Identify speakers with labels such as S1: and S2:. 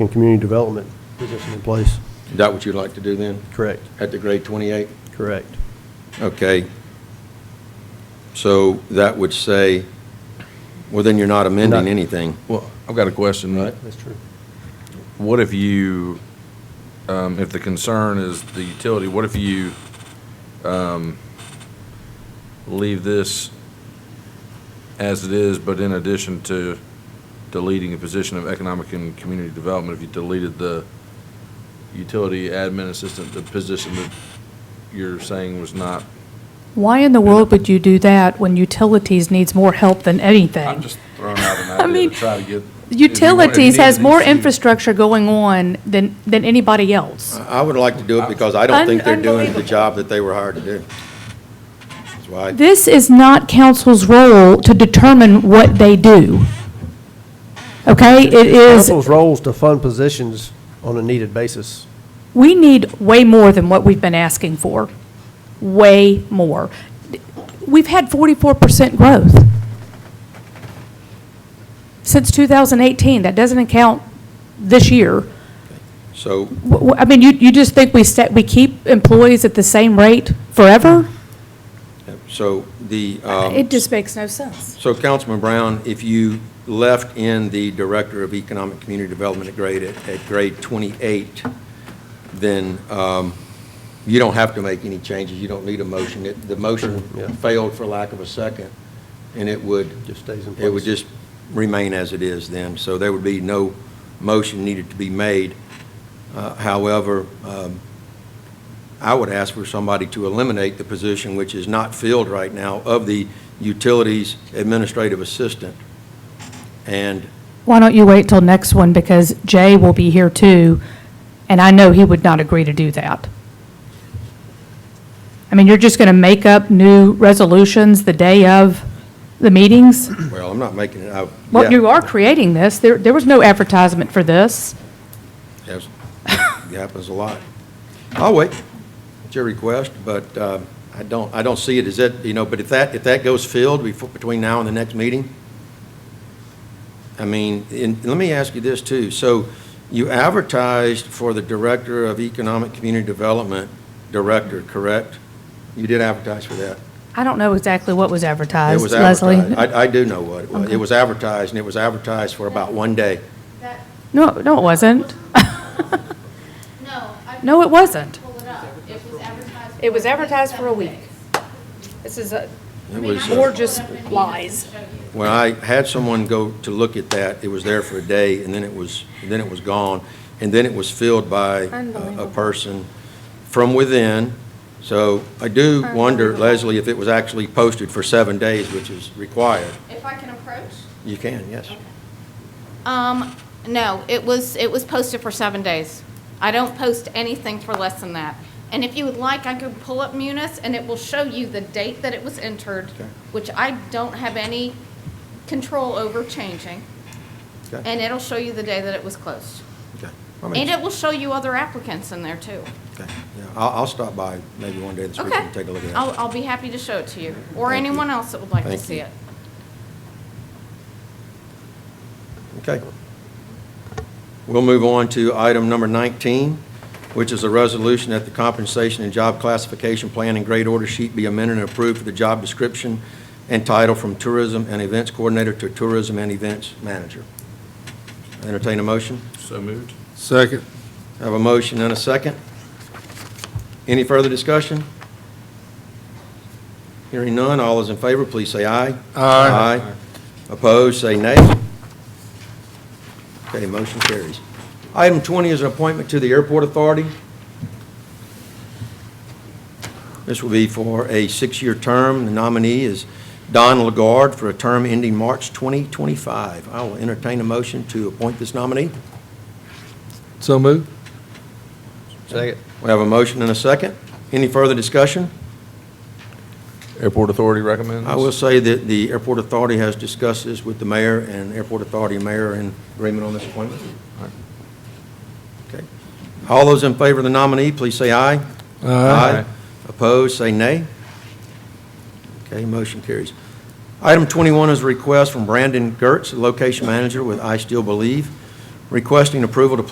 S1: and community development position in place.
S2: Is that what you'd like to do then,
S1: Correct,
S2: at the grade 28?
S1: correct.
S2: Okay. So that would say, well, then you're not amending
S1: Not-
S2: anything.
S3: Well, I've got a question, right?
S1: That's true.
S3: What if you, um, if the concern is the utility, what if you, um, leave this as it is, but in addition to deleting a position of economic and community development, if you deleted the utility admin assistant, the position that you're saying was not?
S4: Why in the world would you do that when utilities needs more help than
S3: I'm
S4: anything?
S3: just throwing out an
S4: I
S3: idea
S4: mean,
S3: to try to get.
S4: Utilities has more
S3: infrastructure.
S4: infrastructure going on than, than anybody else.
S2: I would like to do it because I don't
S4: Un-
S2: think they're doing the
S4: unbelievable.
S2: job that they were hired to do. That's why,
S4: This is not council's role to determine what they do. Okay, it is,
S1: Council's role is to fund positions on a needed basis.
S4: we need way more than what we've been asking for, way more. We've had forty-four percent growth since two thousand eighteen. That doesn't account this year.
S2: so
S4: W- w- I mean, you, you just think we set, we keep employees at the same rate forever?
S2: So the, um,
S4: It just makes no sense.
S2: so Councilman Brown, if you left in the Director of Economic Community Development at grade, at grade 28, then um, you don't have to make any changes, you don't need a motion. It- The motion
S1: Yeah.
S2: failed for lack of a second, and it would.
S1: Just stays in
S2: It would
S1: place.
S2: just remain as it is then, so there would be no motion needed to be made. Uh, However, um, I would ask for somebody to eliminate the position which is not filled right now of the Utilities Administrative Assistant. And
S4: Why don't you wait till next one, because Jay will be here too, and I know he would not agree to do that. I mean, you're just gonna make up new resolutions the day of the meetings?
S2: Well, I'm not making it, I.
S4: Well,
S2: yeah.
S4: you are creating this, there, there was no advertisement for this.
S2: Yes, it happens a lot. I'll wait, it's your request, but uh, I don't, I don't see it as that, you know, but if that, if that goes filled before, between now and the next meeting, I mean, and let me ask you this too. So you advertised for the Director of Economic Community Development, Director, correct? You did advertise for that?
S4: I don't know exactly what was
S2: It
S4: advertised,
S2: was
S4: Leslie.
S2: advertised. I, I do know what it was. It was advertised, and it was advertised for about one day.
S4: No, no, it wasn't.
S5: No, I
S4: No, it wasn't.
S5: pulled it up. It was advertised.
S4: It was
S5: for at least
S4: advertised for a
S5: seven
S4: week.
S5: days.
S4: This is a,
S2: It was. uh,
S4: or just lies.
S2: When I had someone go to look at that, it was there for a day, and then it was, then it was gone, and then it was filled by a- a person from within. So I do wonder, Leslie, if it was actually posted for seven days, which is required.
S5: If I can approach?
S2: You can, yes.
S5: Um, no, it was, it was posted for seven days. I don't post anything for less than that. And if you would like, I can pull up Munis and it will show you the date that it was entered,
S2: Okay.
S5: which I don't have any control over changing.
S2: Okay.
S5: And it'll show you the day that it was closed.
S2: Okay. I mean,
S5: And it will show you other applicants in there too.
S2: okay. Yeah, I'll, I'll stop by maybe one day this week
S5: Okay.
S2: and take a look at
S5: I'll,
S2: it.
S5: I'll be happy to show it to you, or
S2: Thank you.
S5: anyone else that would like to
S2: Thank
S5: see
S2: you.
S5: it.
S2: Okay. We'll move on to item number 19, which is a resolution that the compensation and job classification plan and grade order sheet be amended and approved for the job description and title from tourism and events coordinator to tourism and events manager. Entertain a motion?
S3: So moved.
S6: Second.
S2: Have a motion and a second. Any further discussion? Hearing none, all those in favor, please say aye.
S6: Aye.
S2: Opposed, say nay. Okay, motion carries. Item 20 is an appointment to the Airport Authority. This will be for a six-year term. The nominee is Don Lagarde for a term ending March 2025. I will entertain a motion to appoint this nominee.
S6: So moved.
S2: Second. We have a motion and a second. Any further discussion?
S3: Airport Authority recommends?
S2: I will say that the Airport Authority has discussed this with the mayor, and Airport Authority and mayor are in agreement on this appointment. Okay. All those in favor of the nominee, please say aye. Opposed, say nay. Okay, motion carries. Item 21 is a request from Brandon Gertz, location manager with I Still Believe, requesting approval to